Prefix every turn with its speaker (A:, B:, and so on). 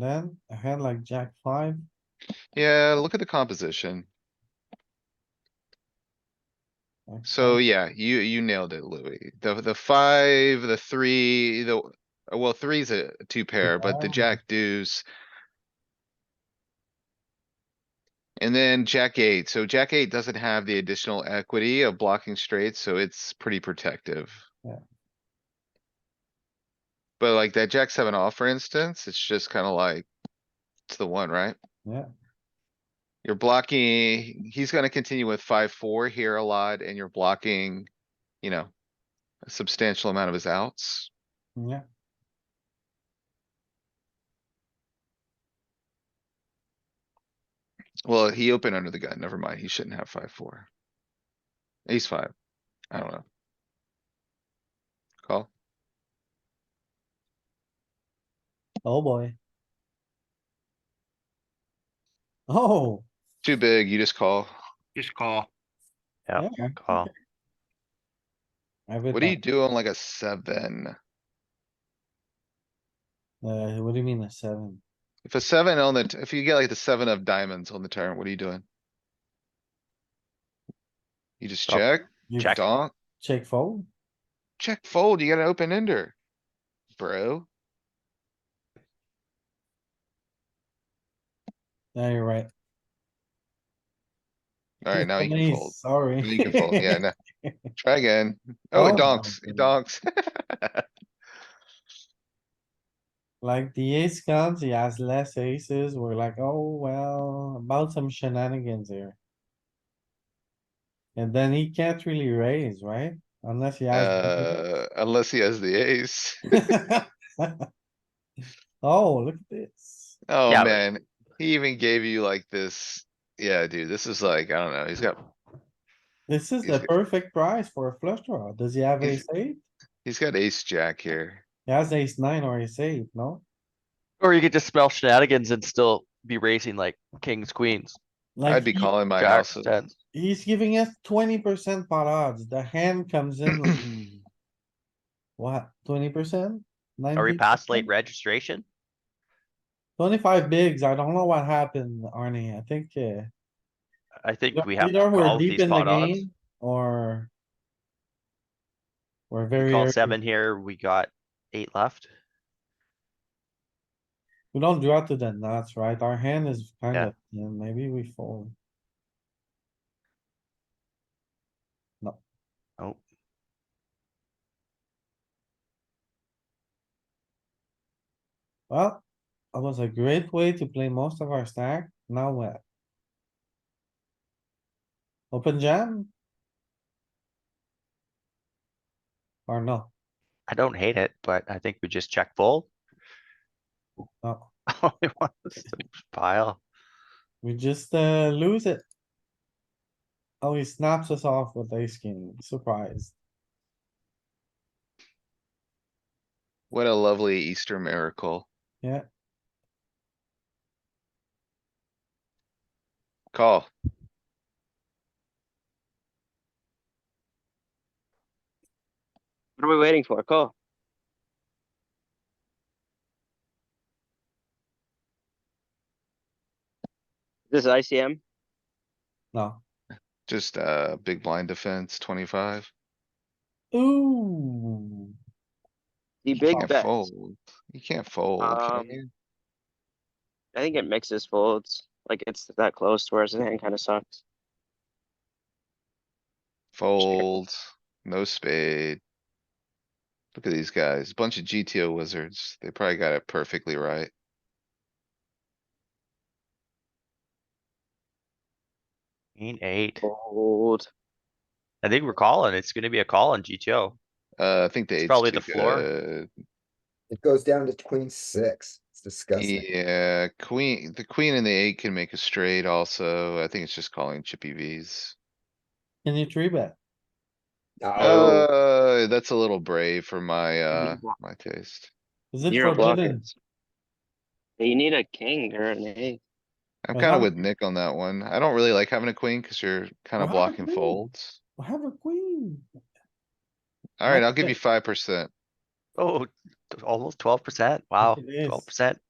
A: Then a hand like jack five,
B: Yeah, look at the composition.
A: like
B: So yeah, you, you nailed it, Louis. The, the five, the three, the, Uh, well, three's a two pair, but the
A: Yeah.
B: jack deuce. And then jack eight. So jack eight doesn't have the additional equity of blocking straight, so it's pretty protective.
A: Yeah.
B: But like that jack seven off, for instance, it's just kinda like, it's the one, right?
A: Yeah.
B: You're blocking, he's gonna continue with five, four here a lot and you're blocking, you know, a substantial amount of his outs.
A: Yeah,
B: Well, he opened under the gun. Never mind. He shouldn't have five, four. Ace five. I don't know. Call.
A: oh boy. Oh,
B: Too big. You just call.
C: Just call.
A: yeah,
D: Yeah, call.
A: every
B: What do you
A: time.
B: do on like a seven?
A: Uh, what do you mean a seven?
B: If a seven on the, t- if you get like the seven of diamonds on the turn, what are you doing? You just
D: Stop.
B: check,
A: You
D: Jack.
B: donk,
A: Check fold?
B: check fold. You got an open ender. Bro,
A: Yeah, you're right.
B: alright, now you can
A: Please,
B: fold.
A: Sorry.
B: You can fold, yeah, no. Try again. Oh,
A: Oh
B: it
A: my
B: donks, it donks.
A: Like the ace comes, he has less aces. We're like, oh, well, about some shenanigans here. And then he can't really raise, right? Unless he has.
B: Uh, unless he has the ace.
A: Oh, look at this.
B: Oh,
D: Yeah, but-
B: man. He even gave you like this. Yeah, dude, this is like, I don't know, he's got,
A: This is
B: He's
A: the
B: g-
A: perfect price for a flush draw. Does he have
B: He's-
A: ace eight?
B: he's got ace jack here.
A: He has ace nine or ace eight, no?
D: Or you could just smell shenanigans and still be racing like kings, queens,
B: I'd
A: Like,
B: be
A: he-
B: calling my
D: jacks,
B: house.
D: tens.
A: he's giving us twenty percent pot odds. The hand comes in, like, what, twenty percent?
D: Are we past late registration?
A: Twenty-five bigs. I don't know what happened, Arnie. I think, uh.
D: I think we have to
A: either we're
D: call
A: deep
D: these
A: in the
D: pot odds.
A: game Or. We're very.
D: Call
A: early.
D: seven here, we got eight left.
A: We don't draw to the nuts, right? Our hand is kind
D: Yeah.
A: of, yeah, maybe we fold.
D: Oh,
A: Well, that was a great way to play most of our stack. Now what? Open jam? Or no?
D: I don't hate it, but I think we just check fold.
A: No,
D: All he wants is to pile.
A: we just, uh, lose it. Oh, he snaps us off with ace king. Surprised.
B: What a lovely Easter miracle.
A: Yeah.
B: Call.
E: What are we waiting for? Call. This is ICM.
A: No.
B: Just, uh, big blind defense, twenty-five.
A: Ooh,
E: The
B: You
E: big
B: can't
E: bet.
B: fold. You can't fold, can
E: Um,
B: you?
E: I think it mixes folds. Like it's that close to whereas the hand kind of sucks.
B: Fold, no spade. Look at these guys, bunch of GTO wizards. They probably got it perfectly right.
D: Queen eight.
E: Fold.
D: I think we're calling. It's gonna be a call on GTO.
B: Uh, I think the
D: It's
B: eight's
D: probably
B: too
D: the floor.
B: good.
F: It goes down to queen six. It's disgusting.
B: Yeah, queen, the queen and the eight can make a straight also. I think it's just calling chippy Vs.
A: can you three bet?
F: No,
A: Oh.
B: Uh, that's a little brave for my, uh,
E: block-
B: my taste.
A: Is it
E: You're a blocker.
A: forbidden?
E: You need a king or an eight.
B: I'm
A: Well,
B: kinda
A: that-
B: with Nick on that one. I don't really like having a queen cuz you're kinda
A: Well, have a
B: blocking
A: queen.
B: folds.
A: We Have a queen.
B: Alright,
A: That's
B: I'll give
A: it.
B: you five percent.
D: Oh, t- almost twelve percent. Wow,
A: It is.
D: twelve percent.